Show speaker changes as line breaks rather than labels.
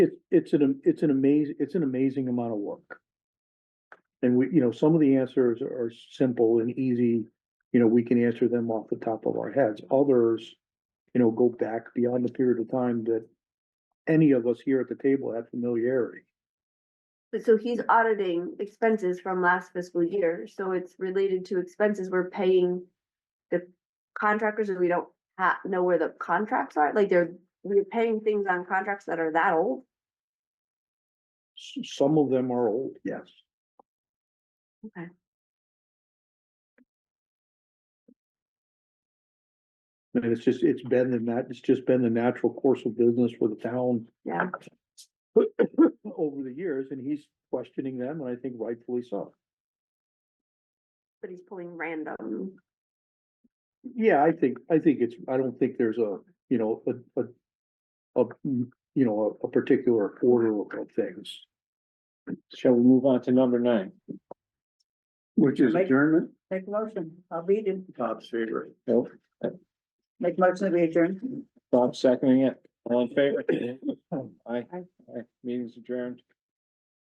It's, it's an, am- it's an amazing, it's an amazing amount of work. And we, you know, some of the answers are simple and easy, you know, we can answer them off the top of our heads. Others, you know, go back beyond the period of time that any of us here at the table have familiarity.
But so he's auditing expenses from last fiscal year, so it's related to expenses we're paying the contractors and we don't ha- know where the contracts are, like they're, we're paying things on contracts that are that old.
S- Some of them are old, yes.
Okay.
And it's just, it's been the nat, it's just been the natural course of business for the town
Yeah,
over the years, and he's questioning them, and I think rightfully so.
but he's pulling random.
Yeah, I think, I think it's, I don't think there's a, you know, a, a. A, mm, you know, a, a particular order of things.
Shall we move on to number nine?
Which
is Make-
adjournment?
Make a motion, I'll read it,
Bob's favorite.
Nope.
make motion to adjourn.
Bob seconding it, all in favor? Aye, aye, meeting's adjourned.